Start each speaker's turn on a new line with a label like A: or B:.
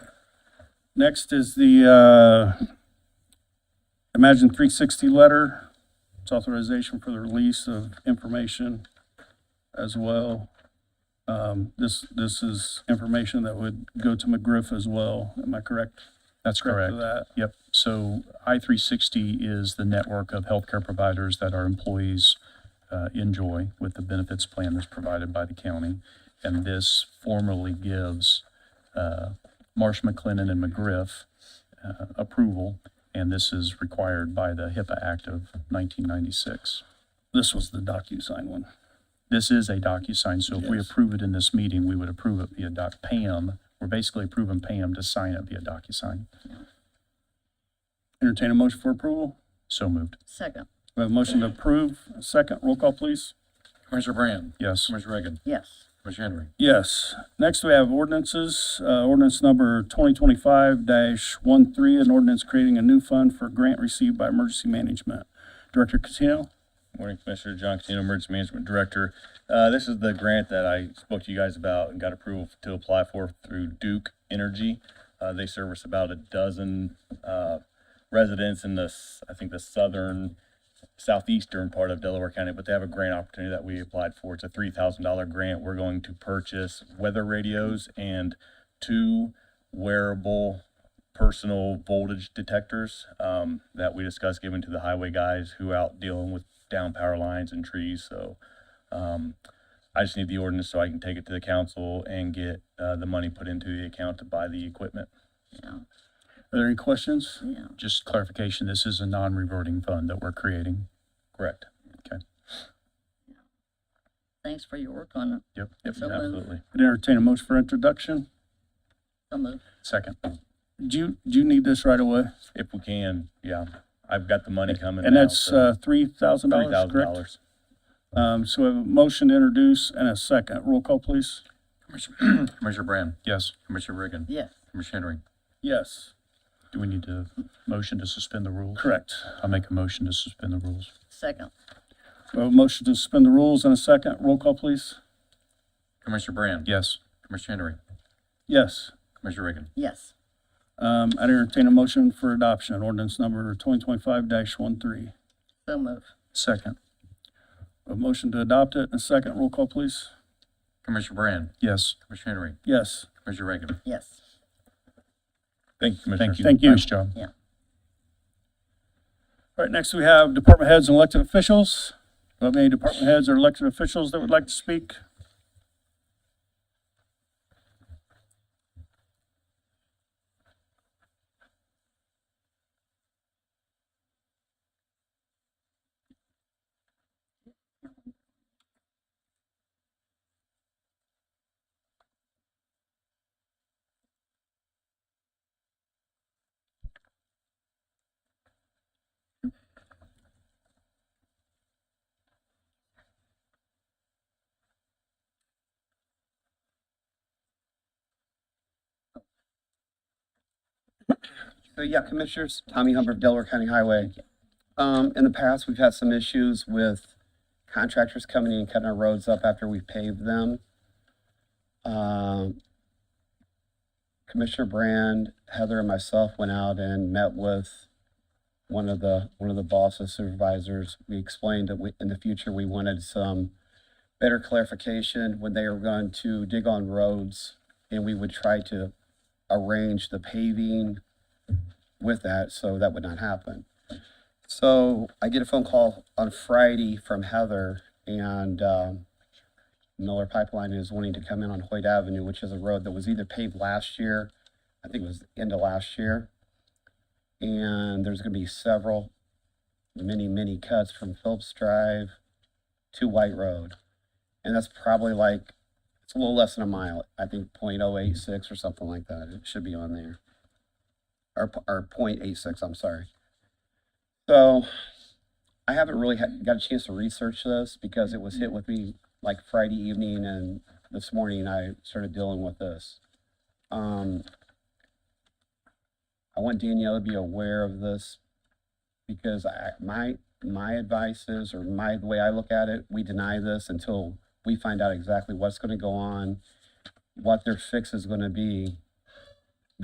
A: Next is the uh, Imagine 360 letter. It's authorization for the release of information as well. Um, This, this is information that would go to McGriff as well. Am I correct?
B: That's
A: Correct.
B: correct.
A: for that?
B: Yep. So I-360 is the network of healthcare providers that our employees uh, enjoy with the benefits plan that's provided by the county. And this formally gives uh, Marsh McLennan and McGriff uh, approval, and this is required by the HIPAA Act of 1996.
A: This was the DocuSign one.
B: This is a DocuSign, so if we
A: Yes.
B: approve it in this meeting, we would approve it via Doc Pam. We're basically approving Pam to sign it via DocuSign.
A: Entertain a motion for approval.
B: So moved.
C: Second,
A: We have a motion to approve. Second, roll call, please.
D: Commissioner Brand.
B: Yes.
D: Commissioner Reagan.
C: yes.
D: Commissioner Henry.
A: Yes. Next, we have ordinances. Uh, Ordinance number 2025-13, an ordinance creating a new fund for grant received by emergency management. Director Catino?
E: Morning, Commissioner John Catino, Emergency Management Director. Uh, This is the grant that I spoke to you guys about and got approval to apply for through Duke Energy. Uh, They service about a dozen uh, residents in the, s- I think, the southern, southeastern part of Delaware County, but they have a grant opportunity that we applied for. It's a three thousand dollar grant. We're going to purchase weather radios and two wearable personal voltage detectors um, that we discussed giving to the highway guys who out dealing with down power lines and trees. So um, I just need the ordinance so I can take it to the council and get uh, the money put into the account to buy the equipment.
C: Yeah,
A: Are there any questions?
C: yeah.
B: Just clarification, this is a non-reverting fund that we're creating.
E: Correct.
C: Thanks for your work on it.
B: Yep.
E: Yep,
C: So moved.
E: absolutely.
A: I'd entertain a motion for introduction.
C: So moved.
B: Second.
A: Do you, do you need this right away?
E: If we can, yeah. I've got the money coming.
A: And
E: now,
A: that's
E: so
A: uh, $3,000, correct?
E: $3,000.
A: Um, So we have a motion to introduce and a second. Roll call, please.
D: Commissioner Commissioner Brand.
B: Yes.
D: Commissioner Reagan.
C: Yes,
D: Commissioner Henry.
A: Yes,
B: Do we need to motion to suspend the rules?
A: correct.
B: I'll make a motion to suspend the rules.
C: second,
A: We have a motion to suspend the rules and a second. Roll call, please.
D: Commissioner Brand.
B: Yes.
D: Commissioner Henry.
A: Yes.
D: Commissioner Reagan.
C: yes.
A: Um, I'd entertain a motion for adoption, ordinance number twenty twenty-five 13
C: So moved.
B: Second.
A: A motion to adopt it, and a second, roll call, please.
D: Commissioner Brand.
B: Yes.
D: Commissioner Henry.
A: Yes,
D: Commissioner Reagan.
C: Yes,
E: Thank you, Commissioner.
B: Thank you.
A: Thank you.
B: Nice job.
C: yeah.
A: all right, next we have department heads and elected officials. Do we have any department heads or elected officials that would like to speak?
F: So Uh, yeah, Commissioners, Tommy Humphrey, Delaware County Highway. Um, in the past, we've had some issues with contractors coming in and cutting our roads up after we paved them. Um, Commissioner Brand, Heather and myself went out and met with one of the, one of the bosses supervisors. We explained that we, in the future, we wanted some better clarification when they were going to dig on roads and we would try to arrange the paving with that, so that would not happen. So I get a phone call on Friday from Heather and um, Miller Pipeline is wanting to come in on Hoyt Avenue, which is a road that was either paved last year, I think it was the end of last year. And there's gonna be several, many, many cuts from Phillips Drive to White Road. And that's probably like, it's a little less than a mile, I think point oh eight six or something like that. It should be on there or, p- or point eight six, I'm sorry. So I haven't really had, got a chance to research this because it was hit with me like Friday evening and this morning I started dealing with this. Um, I want Danielle to be aware of this because I, my, my advice is, or my, the way I look at it, we deny this until we find out exactly what's gonna go on, what their fix is gonna be